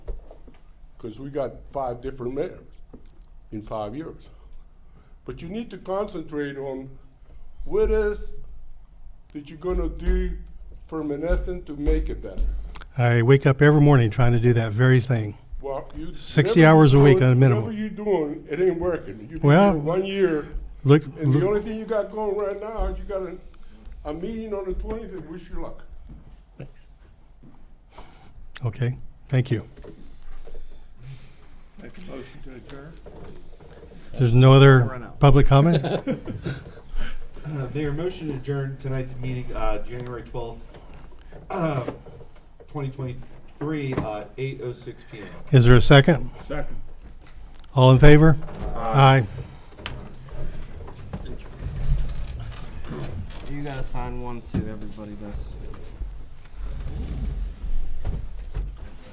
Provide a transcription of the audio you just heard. because we got five different mayors in five years. But you need to concentrate on what is that you're gonna do for Menneson to make it better. I wake up every morning trying to do that very thing. Well, you. 60 whatever hours a you're week doing- at a minimum. Whatever you're doing, it ain't working. You've been Well- here one year, Look, and the look- only thing you got going right now, you got a, a meeting on the twentieth, and wish you luck. okay, thank you. Make a motion to adjourn? There's no Run other out. public comment? Uh, Mayor, motion to adjourn tonight's meeting, uh, January twelfth, uh, twenty twenty-three, uh, eight oh six P M. Is there a second? Second. All in favor? Aye. You gotta sign one too, everybody does.